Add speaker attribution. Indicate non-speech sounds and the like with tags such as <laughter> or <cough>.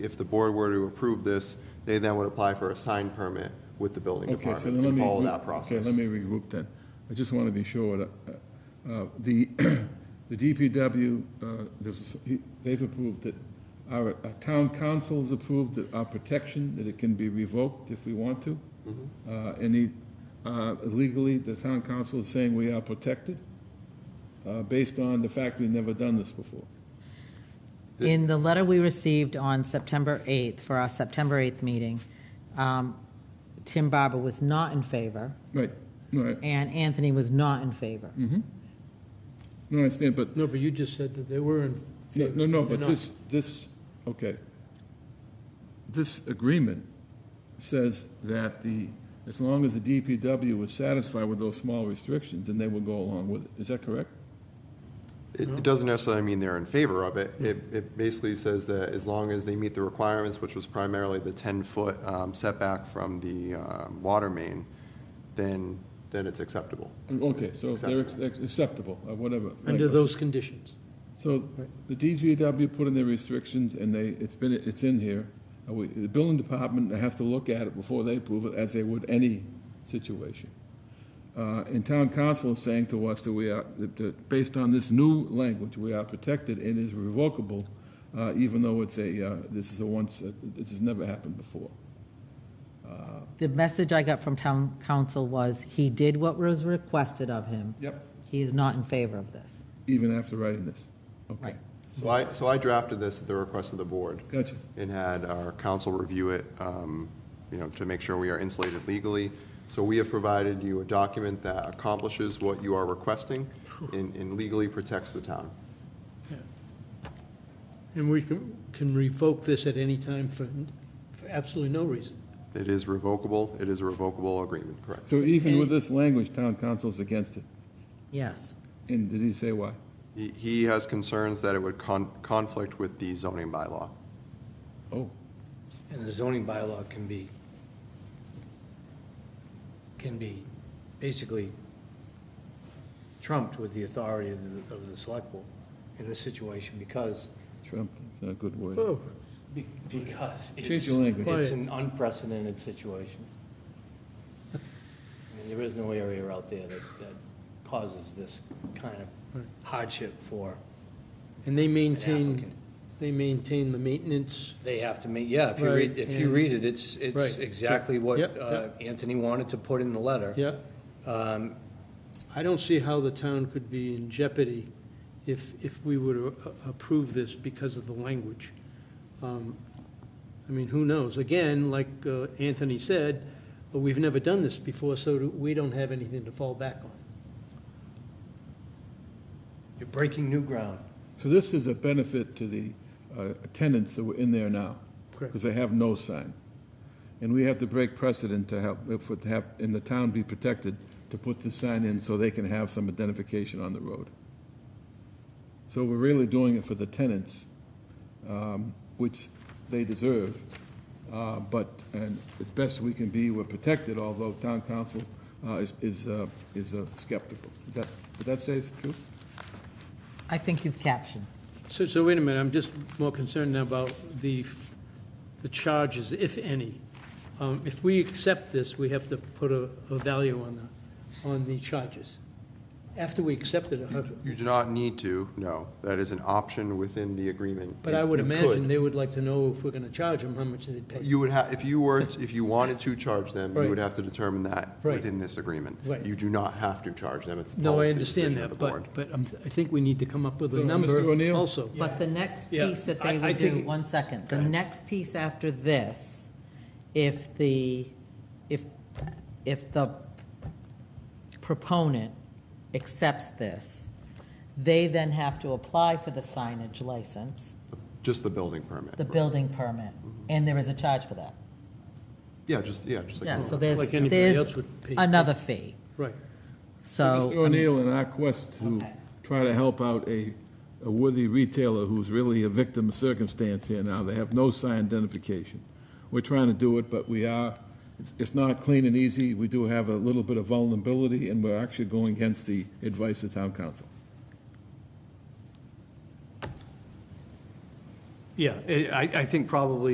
Speaker 1: if the board were to approve this, they then would apply for a sign permit with the building
Speaker 2: Okay, so
Speaker 1: department
Speaker 2: then let
Speaker 1: and
Speaker 2: me.
Speaker 1: follow
Speaker 2: re-
Speaker 1: that process.
Speaker 2: Okay, let me regroup then. I just want to be sure that, uh, uh, the, <clears throat> the DPW, uh, there's- he- they've approved it. Our uh, town council's approved it, our protection, that it can be revoked if we want to.
Speaker 1: Mm-hmm.
Speaker 2: Uh, And he, uh, legally, the town council is saying we are protected, uh, based on the fact we've never done this before.
Speaker 3: In the letter we received on September 8th, for our September 8th meeting, um, Tim Barber was not in favor,
Speaker 2: Right, right.
Speaker 3: and Anthony was not in favor.
Speaker 2: No, I understand, but
Speaker 4: No, but you just said that they were in
Speaker 2: No,
Speaker 4: favor.
Speaker 2: no, no,
Speaker 4: They're
Speaker 2: but
Speaker 4: not.
Speaker 2: this, this, okay. This agreement says that the, as long as the DPW was satisfied with those small restrictions, then they will go along with it. Is that correct?
Speaker 1: It it doesn't necessarily mean they're in favor of it. It,
Speaker 2: Hmm.
Speaker 1: it basically says that as long as they meet the requirements, which was primarily the 10-foot setback from the um, water main, then, then it's acceptable.
Speaker 2: Okay, so they're ex- ex- acceptable, or whatever.
Speaker 4: Mm-hmm. Under
Speaker 2: like-
Speaker 4: those conditions.
Speaker 2: So the DPW put in their restrictions, and they, it's been, it's in here. Uh, we- The building department has to look at it before they approve it, as they would any situation. Uh, And town council is saying to us that we are, that- that based on this new language, we are protected and is revocable, uh, even though it's a, uh, this is a once, this has never happened before.
Speaker 3: The message I got from town council was, he did what was requested of him.
Speaker 2: Yep.
Speaker 3: He is not in favor of this.
Speaker 2: Even after writing this. Okay,
Speaker 3: Right.
Speaker 1: So
Speaker 2: Hmm.
Speaker 1: I, so I drafted this at the request of the board
Speaker 2: gotcha.
Speaker 1: and had our council review it, um, you know, to make sure we are insulated legally. So we have provided you a document that accomplishes what you are requesting and and legally protects the town.
Speaker 4: And we can, can revoke this at any time for, for absolutely no reason.
Speaker 1: It is revocable, it is a revocable agreement, correct?
Speaker 2: So even with this language, town council's against it.
Speaker 3: Yes.
Speaker 2: And did he say why?
Speaker 1: He- He has concerns that it would con- conflict with the zoning bylaw.
Speaker 2: Oh,
Speaker 5: And the zoning bylaw can be, can be basically trumped with the authority of the, of the select board in this situation because,
Speaker 2: Trump, that's not a good word.
Speaker 4: Oh,
Speaker 5: be- because it's.
Speaker 2: Change the language.
Speaker 5: It's an unprecedented situation. I mean, there is no area out there that, that causes this kind of hardship for,
Speaker 4: and they maintain,
Speaker 5: applicant.
Speaker 4: they maintain the maintenance.
Speaker 5: they have to make, yeah, if you read,
Speaker 4: Right,
Speaker 5: if you
Speaker 4: and-
Speaker 5: read it, it's, it's
Speaker 4: Right.
Speaker 5: exactly what
Speaker 4: Yep, yep.
Speaker 5: uh, Anthony wanted to put in the letter.
Speaker 4: Yeah. Um, I don't see how the town could be in jeopardy if, if we were to a- approve this because of the language. Um, I mean, who knows? Again, like uh, Anthony said, uh, we've never done this before, so do- we don't have anything to fall back on.
Speaker 5: You're breaking new ground.
Speaker 2: So this is a benefit to the uh, tenants that were in there now?
Speaker 4: Correct.
Speaker 2: Because they have no sign. And we have to break precedent to help, for, to have, in the town be protected, to put the sign in so they can have some identification on the road. So we're really doing it for the tenants, um, which they deserve. Uh, But, and as best we can be, we're protected, although town council uh, is, is uh, is uh, skeptical. Is that, would that say it's true?
Speaker 3: I think you've captioned.
Speaker 4: So, so wait a minute, I'm just more concerned now about the, f- the charges, if any. Um, If we accept this, we have to put a, a value on the, on the charges. After we accept it, how-
Speaker 1: You do not need to, no. That is an option within the agreement.
Speaker 4: but I would
Speaker 1: You could.
Speaker 4: imagine they would like to know if we're gonna charge them, how much they pay.
Speaker 1: You would have, if you were, if you wanted to charge them, you
Speaker 4: Right.
Speaker 1: would have to determine that
Speaker 4: Right.
Speaker 1: within this agreement.
Speaker 4: Right.
Speaker 1: You do not have to charge them, it's the
Speaker 4: No, I
Speaker 1: policy
Speaker 4: understand
Speaker 1: decision of the
Speaker 4: that,
Speaker 1: board.
Speaker 4: but, but I'm- I think we need to come up with
Speaker 2: So,
Speaker 4: a
Speaker 2: Mr.
Speaker 4: number
Speaker 2: O'Neill?
Speaker 4: also.
Speaker 3: But the next
Speaker 5: Yeah,
Speaker 3: piece that they
Speaker 5: I- I
Speaker 3: would do,
Speaker 5: think-
Speaker 3: one second, the
Speaker 5: ahead.
Speaker 3: next piece after this, if the, if, if the proponent accepts this, they then have to apply for the signage license,
Speaker 1: Just the building permit.
Speaker 3: the building permit, and there is a charge for that.
Speaker 1: Yeah, just, yeah, just like.
Speaker 3: Yeah, so there's,
Speaker 4: Like anybody
Speaker 3: there's
Speaker 4: else would pay.
Speaker 3: another fee,
Speaker 4: Right.
Speaker 3: so.
Speaker 2: Mr.
Speaker 3: I mean,
Speaker 2: O'Neill, in our quest to
Speaker 3: Okay.
Speaker 2: try to help out a a worthy retailer who's really a victim of circumstance here now, they have no sign identification. We're trying to do it, but we are, it's- it's not clean and easy. We do have a little bit of vulnerability, and we're actually going against the advice of town council.
Speaker 5: Yeah, I, I think probably